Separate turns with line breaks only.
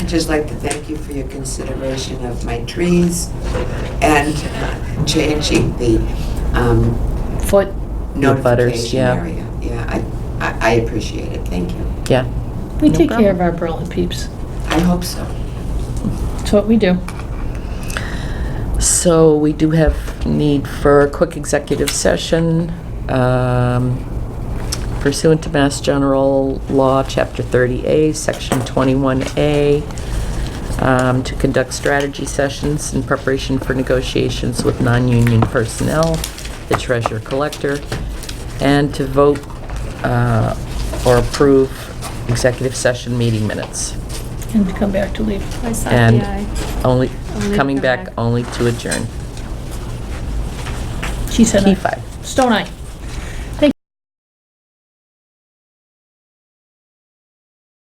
just like to thank you for your consideration of my trees and uh, changing the um,
Foot, The butters,
notification
yeah.
area. Yeah, I- I, I appreciate it, thank you.
yeah.
We
No
take care
problem.
of our Berlin peeps.
I hope so.
That's what we do.
So we do have need for a quick executive session um, pursuant to Mass General Law, Chapter 30A, Section 21A, um, to conduct strategy sessions in preparation for negotiations with non-union personnel, the treasurer collector, and to vote uh, or approve executive session meeting minutes.
And to come back to leave.
I saw
And
the eye.
only,
Only
coming
come
back
back.
only to adjourn.
She said
Key
aye.
five.
Stone eye.